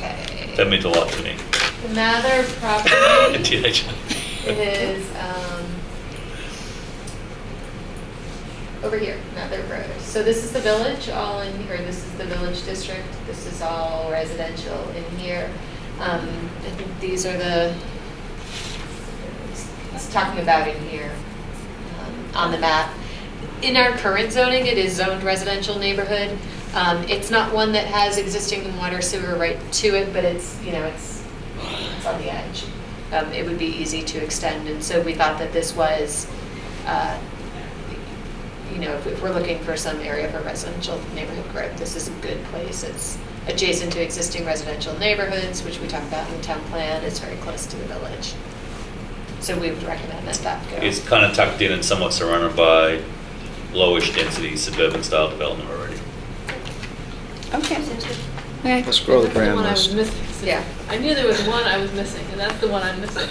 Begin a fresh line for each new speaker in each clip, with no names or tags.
that means a lot to me.
The Mather property
Did I just-
is, um, over here, Mather Road. So this is the village, all in here, this is the village district, this is all residential in here. Um, I think these are the, it's talking about in here, um, on the map. In our current zoning, it is zoned residential neighborhood. Um, it's not one that has existing water sewer right to it, but it's, you know, it's, it's on the edge. Um, it would be easy to extend, and so we thought that this was, uh, you know, if- if we're looking for some area for residential neighborhood growth, this is a good place. It's adjacent to existing residential neighborhoods, which we talked about in the town plan, it's very close to the village. So we would recommend that that go.
It's kind of tucked in and somewhat surrounded by lowish density suburban style development already.
Okay. Okay.
Let's grow the
That's
brand
one I was
list.
missing. So
Yeah.
I knew there was one I was missing, and that's the one I'm missing.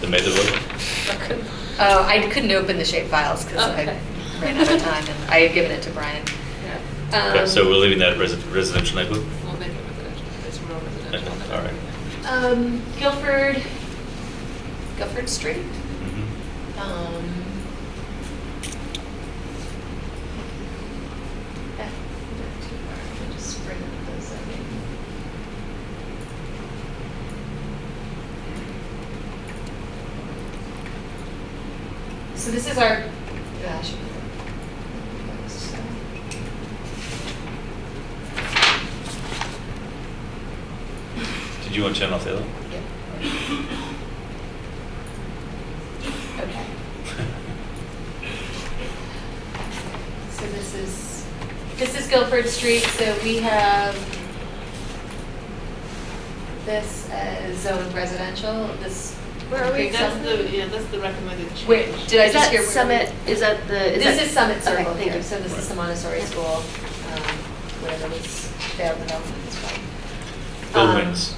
The Uh, method of,
I couldn't-
Oh, I couldn't open the shape files because
Okay.
I ran out of time and I had given it to Brian.
yeah,
okay, so
Um,
we're leaving that resi- residential neighborhood?
We'll make it residential, it's rural residential.
Okay, All right.
Um, Guilford, Guilford Street.
Mhm.
Mm-hmm.
Um, eh, not too far. Let me just bring up those, I mean. So this is our, yeah, I should put that. So-
Did you want to turn off the other?
Yep. Okay. So this is, this is Guilford Street, so we have this as zoned residential, this.
Where are we?
creek
That's
zone.
the, yeah, that's the recommended change.
Wait, did I
Is
just
that
hear? where we-
Summit, is that the? is
This
that-
is Summit
okay,
Circle
thank
here,
you.
so this is the Montessori School, um, whatever this failed development is Um, called. Um,
Hillwinds.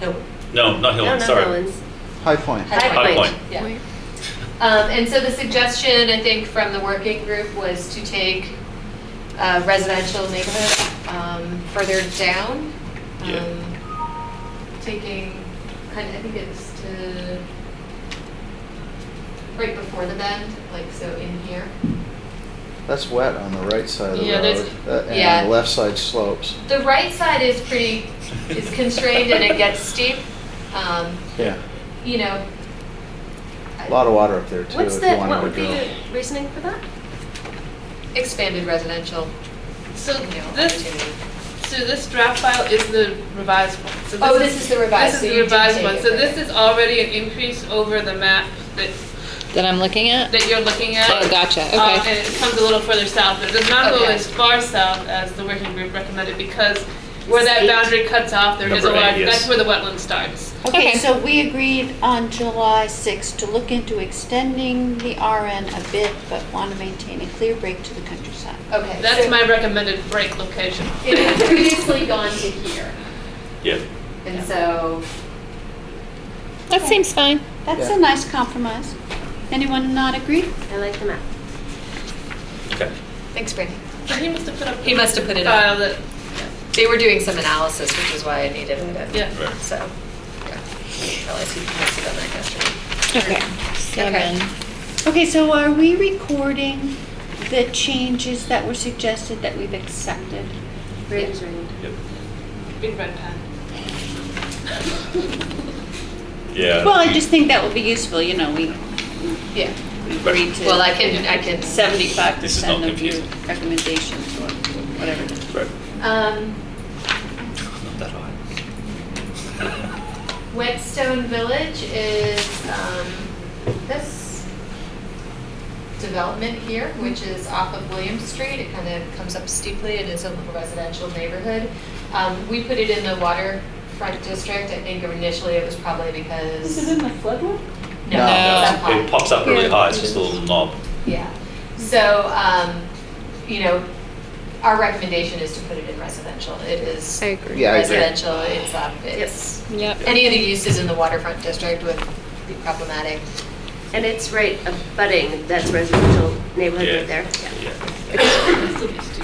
Hill-
No, not
No,
Hillwinds,
no,
sorry.
no, it's
High Point.
High
High
Point.
Point.
Yeah. Um, and so the suggestion, I think, from the working group was to take uh, residential neighborhood um, further down.
Yeah.
Um, Taking, kind of, I think it's to, right before the bend, like, so in here.
That's wet on the right side of the
Yeah, there's-
road. That-
Yeah.
And the left side slopes.
The right side is pretty, is constrained and it gets steep, um,
Yeah.
you know.
A lot of water up there too,
What's
if
the,
you wanted
what
to
would be
drill.
the reasoning for that?
Expanded residential,
So
you know,
this,
opportunity.
so this draft file is the revised one. So
Oh, this is the revised,
This
so
is
you
the
did
revised
take
one,
it
so
from
this
there.
is already an increase over the map that
that I'm looking at?
that you're looking at.
Oh, gotcha. Okay.
Uh, and it comes a little further south, but it does not go
Okay.
as far south as the working group recommended because where
It's
that
eight.
boundary cuts off, there is a
Number eight,
lot,
yes.
that's where the wetland starts.
Okay,
Okay.
so we agreed on July 6th to look into extending the RN a bit, but want to maintain a clear break to the countryside.
okay.
That's
so
my recommended break location.
It had previously gone to here,
Yeah.
and so
That seems fine.
That's
Yeah.
a nice compromise. Anyone not agree?
I like the map.
Okay.
Thanks, Brandy.
So he must have put up.
He must have put it
file
up.
that-
They were doing some analysis, which is why I needed it.
Yeah.
Right.
So, yeah. Realized he must have done that yesterday.
Okay. Seven.
Okay, so are we recording the changes that were suggested that we've accepted?
Brady's running.
Yep.
Big red pen.
Yeah.
Well, I just think that would be useful, you know, we
Yeah.
we agreed to.
Well, I can, I can.
75% of your
confusing.
recommendations or whatever.
Right.
Um,
Not that high.
Whetstone Village is, um, this development here, which
Mm-hmm.
is off of William Street. It kind of comes up steeply and is a little residential neighborhood. Um, we put it in the waterfront district. I think initially it was probably because.
the flood one?
No,
No.
it's up high.
It pops up really high, it's just a little knob.
Yeah. So, um, you know, our recommendation is to put it in residential. It is
I agree.
Yeah, I agree.
residential, it's up, it's,
Yep.
any of the uses in the waterfront district would be problematic.
And it's right abutting, that's residential neighborhood
Yeah.
right there.
Yeah.
This will be stupid.